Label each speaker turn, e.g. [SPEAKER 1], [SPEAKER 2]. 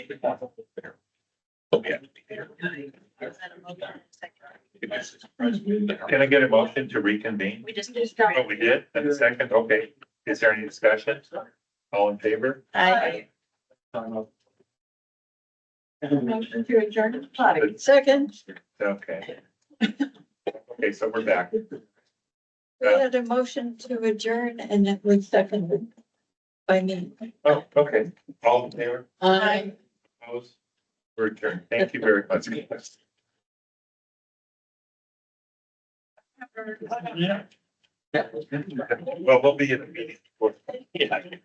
[SPEAKER 1] But we have to be there.
[SPEAKER 2] Is that a motion? Second.
[SPEAKER 1] Because it's surprised we- Can I get a motion to reconvene?
[SPEAKER 2] We just. did
[SPEAKER 1] What we did, and a second, okay, is there any discussion? All in favor?
[SPEAKER 2] I.
[SPEAKER 3] Motion to adjourn.
[SPEAKER 2] Second,
[SPEAKER 1] Okay. Okay, so we're back.
[SPEAKER 2] we had a motion to adjourn and it was seconded by me.
[SPEAKER 1] Oh, okay, all in favor,
[SPEAKER 3] Aye.
[SPEAKER 1] opposed? We're adjourned. Thank you very much. Well, we'll be in the meeting. Yeah.